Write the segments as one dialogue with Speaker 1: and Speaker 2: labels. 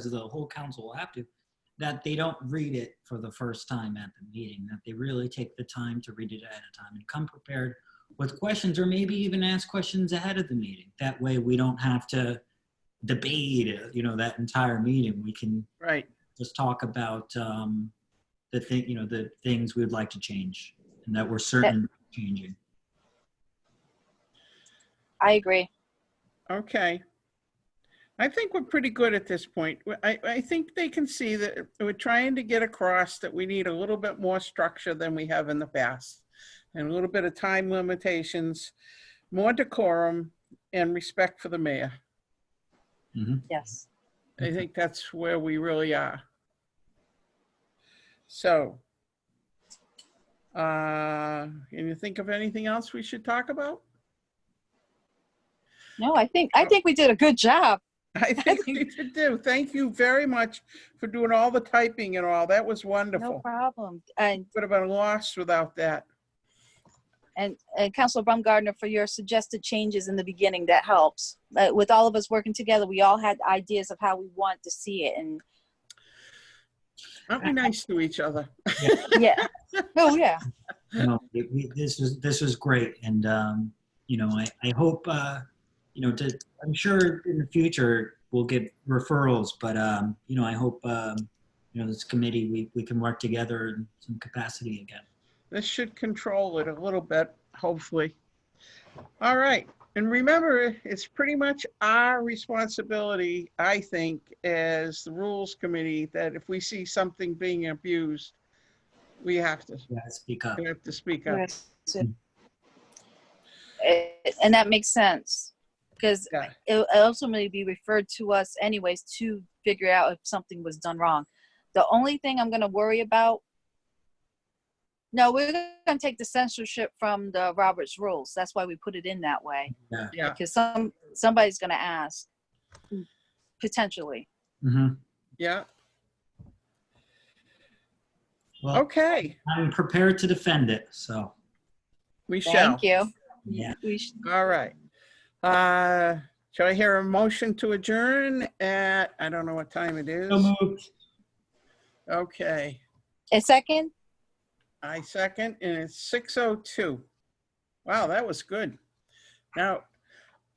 Speaker 1: because the whole council will have to, that they don't read it for the first time at the meeting, that they really take the time to read it ahead of time and come prepared with questions or maybe even ask questions ahead of the meeting. That way we don't have to debate, uh, you know, that entire meeting. We can
Speaker 2: Right.
Speaker 1: just talk about um, the thing, you know, the things we'd like to change and that we're certain changing.
Speaker 3: I agree.
Speaker 2: Okay. I think we're pretty good at this point. We- I, I think they can see that we're trying to get across that we need a little bit more structure than we have in the past. And a little bit of time limitations, more decorum and respect for the mayor.
Speaker 3: Yes.
Speaker 2: I think that's where we really are. So. Uh, can you think of anything else we should talk about?
Speaker 3: No, I think I think we did a good job.
Speaker 2: I think we should do. Thank you very much for doing all the typing and all. That was
Speaker 3: No
Speaker 2: wonderful.
Speaker 3: problem. And
Speaker 2: Would have been lost without that.
Speaker 3: and and Councilor Baumgartner for your suggested changes in the beginning. That helps. Uh, with all of us working together, we all had ideas of how we want to see it. And
Speaker 2: Aren't we nice to each other?
Speaker 3: yeah. oh yeah.
Speaker 1: you know, we- we- this was this was great, and um, you know, I I hope uh, you know, to, I'm sure in the future we'll get referrals, but um, you know, I hope um, you know this committee we we can work together in some capacity again.
Speaker 2: This should control it a little bit, hopefully. All right. And remember, it's pretty much our responsibility, I think, as the Rules Committee, that if we see something being abused, we have to,
Speaker 1: Yeah, speak up.
Speaker 2: we have to speak up.
Speaker 3: So- Eh, and that makes sense because
Speaker 2: Yeah.
Speaker 3: it ultimately be referred to us anyways to figure out if something was done wrong. The only thing I'm gonna worry about, no, we're gonna take the censorship from the Roberts rules. That's why we put it in that way.
Speaker 1: Yeah.
Speaker 2: Yeah.
Speaker 3: Because some, somebody's gonna ask, potentially.
Speaker 1: hmm
Speaker 2: Yeah.
Speaker 1: Well,
Speaker 2: Okay.
Speaker 1: I'm prepared to defend it. So
Speaker 2: We shall.
Speaker 3: Thank you.
Speaker 1: yeah,
Speaker 3: We sh-
Speaker 2: All right. Uh, Shall I hear a motion to adjourn at, I don't know what time it is.
Speaker 1: so moved.
Speaker 2: Okay,
Speaker 3: A second?
Speaker 2: I second, and it's 6:02. Wow, that was good. Now,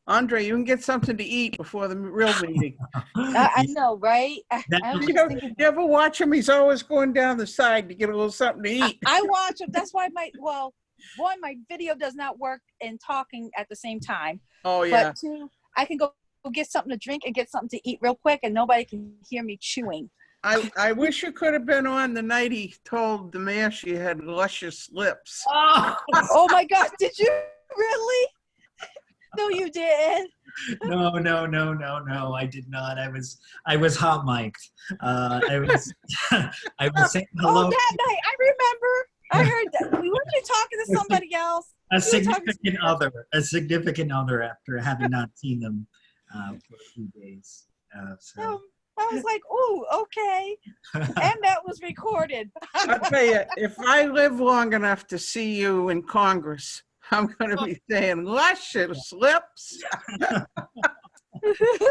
Speaker 2: Andre, you can get something to eat before the real meeting.
Speaker 3: Uh, I,
Speaker 1: Ah,
Speaker 3: I know, right? I-
Speaker 1: That-
Speaker 3: I was
Speaker 2: You
Speaker 3: just
Speaker 2: know,
Speaker 3: thinking-
Speaker 2: you ever watch him? He's always going down the side to get a little something to
Speaker 3: I,
Speaker 2: eat.
Speaker 3: I watch them. That's why my well, one, my video does not work and talking at the same time.
Speaker 2: Oh, yeah.
Speaker 3: But two, I can go go get something to drink and get something to eat real quick, and nobody can hear me chewing.
Speaker 2: I, I wish you could have been on the night he told the mayor she had luscious lips.
Speaker 1: Oh,
Speaker 3: oh my gosh, did you really? No, you didn't.
Speaker 1: no, no, no, no, no! I did not. I was, I was hot mic'd. Uh, I was, I was saying hello.
Speaker 3: Oh, that night, I remember. I heard that. We weren't you talking to somebody else.
Speaker 1: a
Speaker 3: We were talking
Speaker 1: significant other, a significant other after having not seen them uh, for a few days. Uh,
Speaker 3: Um,
Speaker 1: so
Speaker 3: I was like, "Ooh, okay," and that was recorded.
Speaker 2: I'll tell you, if I live long enough to see you in Congress, I'm going to be saying luscious lips.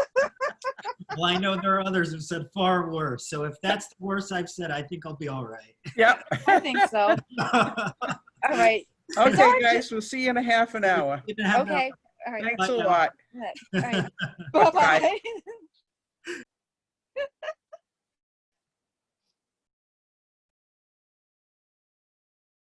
Speaker 1: well, I know there are others who said far worse. So if that's the worst I've said, I think I'll be all right.
Speaker 2: Yep.
Speaker 3: I think so. All right.
Speaker 2: Okay, guys, we'll see you in a half an hour.
Speaker 1: Didn't have that-
Speaker 3: Okay. All right.
Speaker 2: Thanks a lot.
Speaker 3: All right. Bye bye.